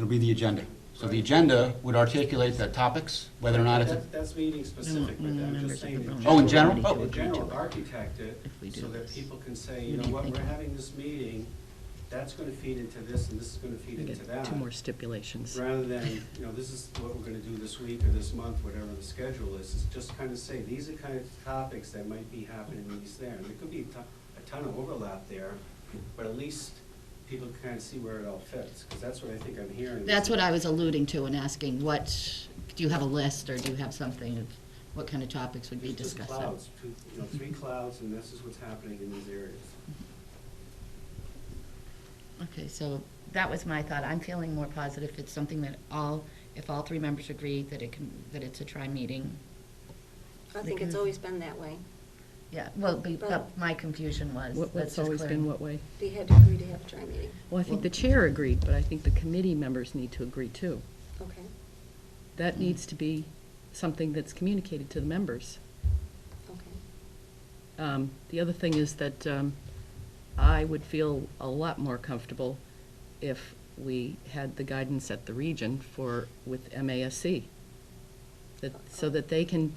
It'll be the agenda. So the agenda would articulate the topics, whether or not it's, That- That's meeting specific, but no I'm members of just saying. the oh, in general? Already Oh, In general, architect it If we do so that this. people can say, What you do know you what, think? we're having this meeting, that's gonna feed into this and this is gonna feed We into get that. two more stipulations. Rather than, you know, this is what we're gonna do this week or this month, whatever the schedule is, is just kind of say, these are kind of topics that might be happening in these there. And there could be a ton, a ton of overlap there, but at least people can kind of see where it all fits, because that's what I think I'm hearing. That's what I was alluding to and asking, what, do you have a list, or do you have something of what kind of topics would be There's two discussed? clouds, two, you know, three clouds, and this is what's happening in these areas. Okay, so that was my thought. I'm feeling more positive. It's something that all, if all three members agree that it can, that it's a tri-meeting. I think it's always been that way. Yeah, well, be- but But- my confusion was, let's What- What's just always clear. been what way? They had to agree to have a tri meeting, Well, I think the chair agreed, but I think the committee members need to agree too. okay? That needs to be something that's communicated to the members. Okay. Um, The other thing is that um, I would feel a lot more comfortable if we had the guidance at the region for, with MASC, that, so that they can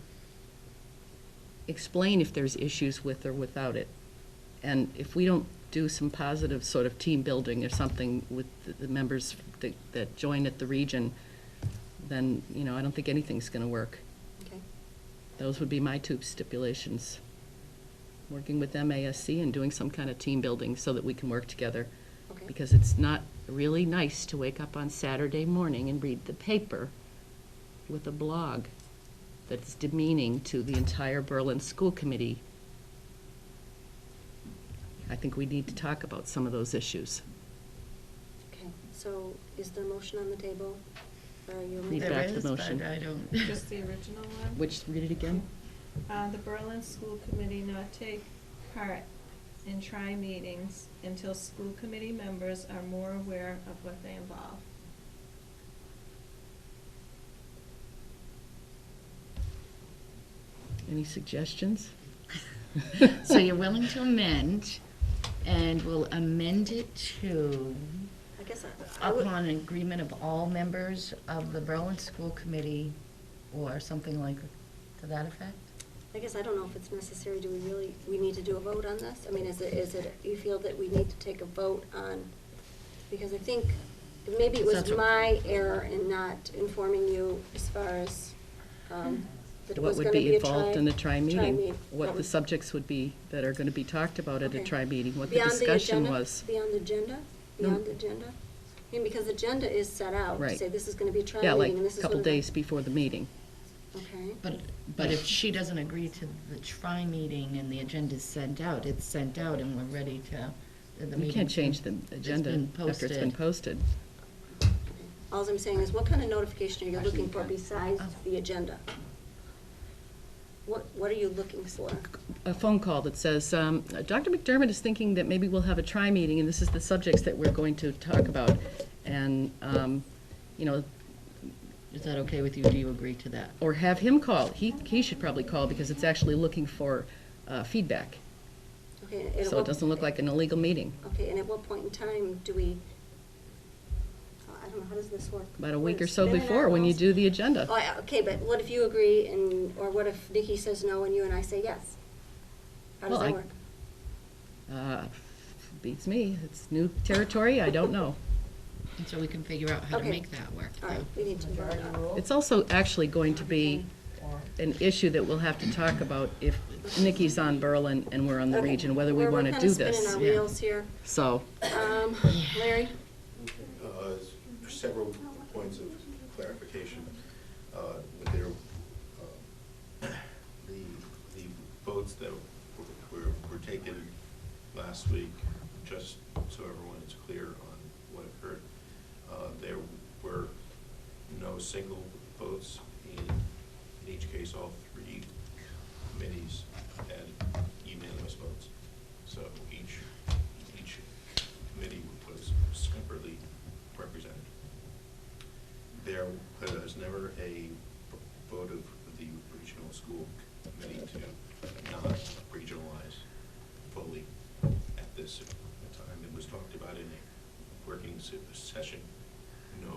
explain if there's issues with or without it. And if we don't do some positive sort of team building or something with the- the members that, that join at the region, then, you know, I don't think anything's going to work. Okay. Those would be my two stipulations. Working with MASC and doing some kind of team building so that we can work together. Okay. Because it's not really nice to wake up on Saturday morning and read the paper with a blog that's demeaning to the entire Berlin School Committee. I think we need to talk about some of those issues. Okay, so is the motion on the table? Or are you? Read amending- There back the is, but motion. I don't. Just the original one? Which, read it again? Uh, the Berlin School Committee not take part in tri-meetings until school committee members are more aware of what they involve. Any suggestions? So you're willing to amend, and we'll amend it to I guess I, I would, upon agreement of all members of the Berlin School Committee, or something like, to that effect? I guess I don't know if it's necessary. Do we really, we need to do a vote on this? I mean, is it, is it, you feel that we need to take a vote on? Because I think, maybe it was That's what- my error in not informing you as far as, um, that it what was would gonna be be a tri. involved in a tri-meeting, tri-meet. what Um, the subjects would be that are going to be talked about at a Okay. tri-meeting, what the Beyond discussion agenda- was. Beyond the agenda? No. Beyond the agenda? I mean, because the agenda is set out. to Right. Say, this is going to be a trial Yeah, like uh, meeting, and this a is couple one of the-" days before the meeting. Okay, But, but if she doesn't agree to the tri-meeting and the agenda's sent out, it's sent out and we're ready to, the meeting. You can't change the agenda been after it's been posted. all I'm saying is, what kind of notification are you looking for besides Oh. the agenda? What, what are you looking for? A phone call that says, um, Dr. McDermott is thinking that maybe we'll have a tri-meeting, and this is the subjects that we're going to talk about. And, um, you know, Is that okay with you? Do you agree to that? or have him call. He, he should probably call because it's actually looking for uh, feedback. Okay, and at So what- it doesn't look like an illegal meeting. Okay, and at what point in time do we, oh, I don't know, how does this work? About a week We're or so spinning our before, when you wheels. do the agenda. Oh, I- okay, but what if you agree and, or what if Nikki says no and you and I say yes? How does Well, I- that work? Uh, Beats me. It's new territory. I don't know. And so we can figure out how to Okay. make that work. All right, we need to vote on it. It's also actually going to be an issue that we'll have to talk about if Nikki's on Berlin and we're on the Okay. region, whether we We're- want to do We're kind of this. spinning our wheels here. So, Um, Larry? Uh, Several points of clarification. Uh, There, uh, the, the votes that were, were taken last week, just so everyone is clear on what occurred, uh, there were no single votes in, in each case, all three committees had unanimous votes. So each, each committee was separately represented. There was never a vote of the regional school committee to not regionalize fully at this time. It was talked about in a working se- session